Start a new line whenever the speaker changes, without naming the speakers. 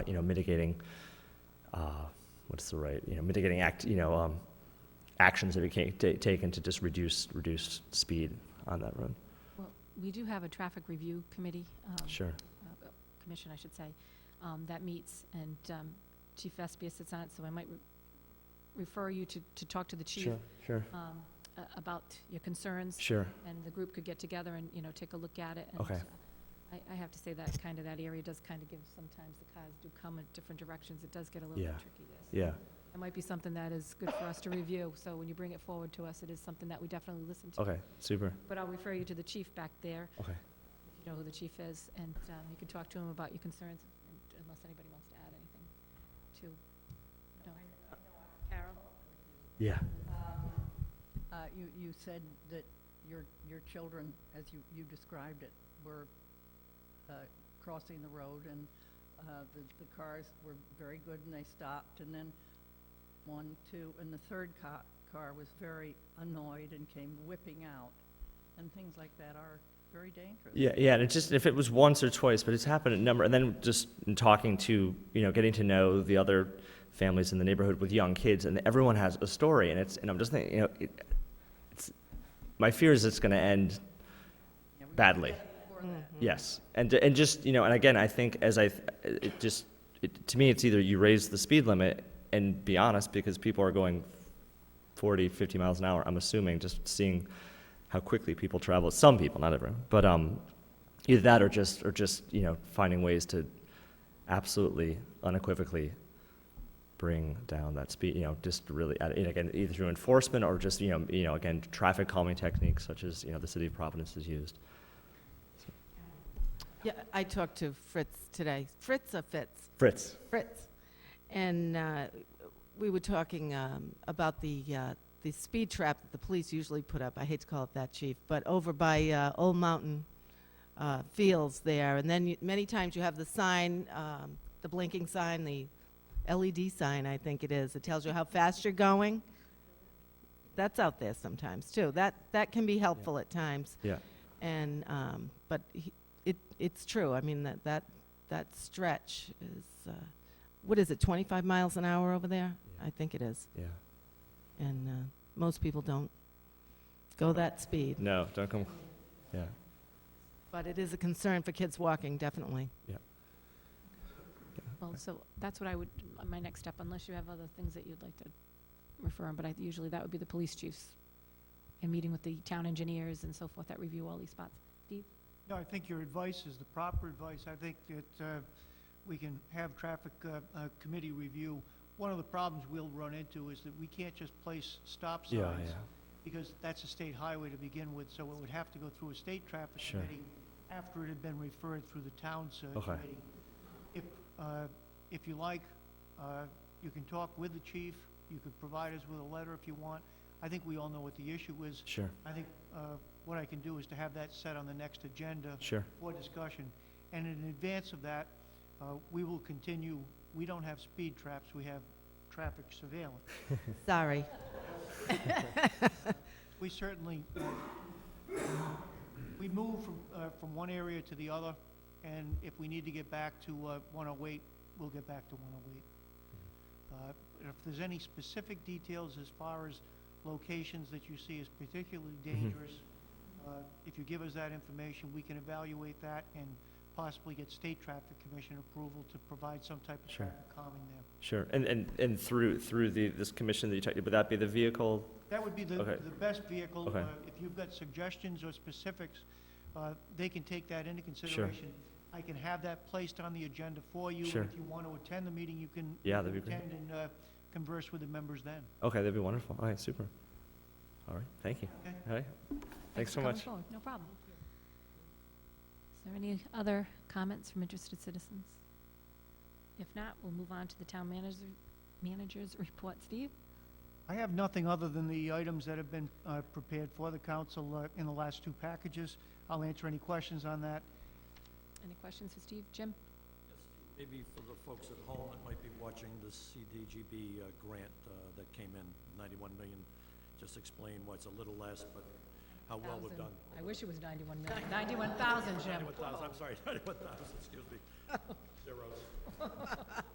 you know, mitigating, uh, what's the right, you know, mitigating act, you know, um, actions that we can ta- taken to just reduce, reduce speed on that road.
We do have a traffic review committee, um,
Sure.
uh, commission, I should say, um, that meets, and um, Chief Vespia sits on it, so I might re- refer you to, to talk to the chief
Sure, sure,
um, a- about your concerns,
sure.
and the group could get together and, you know, take a look at it. and,
Okay.
uh, I, I have to say that kind of, that area does kind of give, sometimes the cars do come in different directions. It does get a little bit
Yeah.
tricky there. so
Yeah,
It might be something that is good for us to review, so when you bring it forward to us, it is something that we definitely listen to.
okay, super,
But I'll refer you to the chief back there,
okay.
if you know who the chief is, and um, you can talk to him about your concerns, and- unless anybody wants to add anything to. no. Carol?
Yeah.
Uh, You, you said that your, your children, as you, you described it, were uh, crossing the road and uh, the, the cars were very good and they stopped. And then one, two, and the third car, car was very annoyed and came whipping out. And things like that are very dangerous.
Yeah, yeah, and it just if it was once or twice, but it's happened a number, and then just in talking to you know, getting to know the other families in the neighborhood with young kids, and everyone has a story, and it's and I'm just thinking, you know, it, it's my fear is it's going to end
Yeah, we-
badly.
Before that.
Yes, and and just you know, and again, I think as I it just it, to me, it's either you raise the speed limit and be honest because people are going 40, 50 miles an hour. I'm assuming just seeing how quickly people travel. Some people, not everyone, but um, either that or just or just you know finding ways to absolutely unequivocally bring down that speed. You know, just really and again either through enforcement or just you know you know again traffic calming techniques such as you know the city of Providence has used.
Yeah, I talked to Fritz today. Fritz or Fitz?
Fritz.
Fritz. And uh, we were talking um, about the, uh, the speed trap that the police usually put up. I hate to call it that, Chief, but over by uh, Old Mountain uh, Fields there. And then you, many times you have the sign, um, the blinking sign, the LED sign, I think it is. It tells you how fast you're going. That's out there sometimes too. That, that can be helpful at times.
Yeah.
And, um, but he, it, it's true. I mean, that, that, that stretch is, uh, what is it, 25 miles an hour over there?
Yeah.
I think it is.
Yeah.
And, uh, most people don't go that speed.
No, don't come. Yeah.
But it is a concern for kids walking, definitely.
Well, so that's what I would, my next step, unless you have other things that you'd like to refer on, but I, usually that would be the police chiefs, and meeting with the town engineers and so forth that review all these spots.
No, I think your advice is the proper advice. I think that uh, we can have traffic uh, uh, committee review. One of the problems we'll run into is that we can't just place stop signs because that's a state highway to begin with, so it would have to go through a state traffic
Sure.
committee after it had been referred through the town's uh,
Okay.
committee. If, uh, if you like, uh, you can talk with the chief, you could provide us with a letter if you want. I think we all know what the issue is.
Sure.
I think uh, what I can do is to have that set on the next agenda
Sure.
for discussion. And in advance of that, uh, we will continue, we don't have speed traps, we have traffic surveillance.
Sorry.
We certainly, uh, we move from, uh, from one area to the other, and if we need to get back to uh, 108, we'll get back to 108. Uh, If there's any specific details as far as locations that you see as particularly dangerous, uh, if you give us that information, we can evaluate that and possibly get state traffic commission approval to provide some type of
Sure.
traffic calming there.
Sure. And and and through through the this commission that you talked, would that be the vehicle?
That would be the,
Okay.
the best vehicle.
Okay.
Uh, If you've got suggestions or specifics, uh, they can take that into consideration. I can have that placed on the agenda for you.
Sure.
If you want to attend the meeting, you can.
Yeah,
you
that'd
can
be great.
Attend and uh, converse with the members then.
Okay, that'd be wonderful. All right, super. All right, thank you.
Okay.
All right. Thanks so
for coming
much.
forward. No problem. Is there any other comments from interested citizens? If not, we'll move on to the town manager, manager's report. Steve?
I have nothing other than the items that have been uh, prepared for the council uh, in the last two packages. I'll answer any questions on that.
Any questions for Steve? Jim?
Maybe for the folks at home that might be watching the CDGB uh, grant uh, that came in, 91 million, just explain why it's a little less, but how well we've done.
I wish it was 91 million. 91,000, Jim.
91,000, I'm sorry, 91,000, excuse me. Zeros.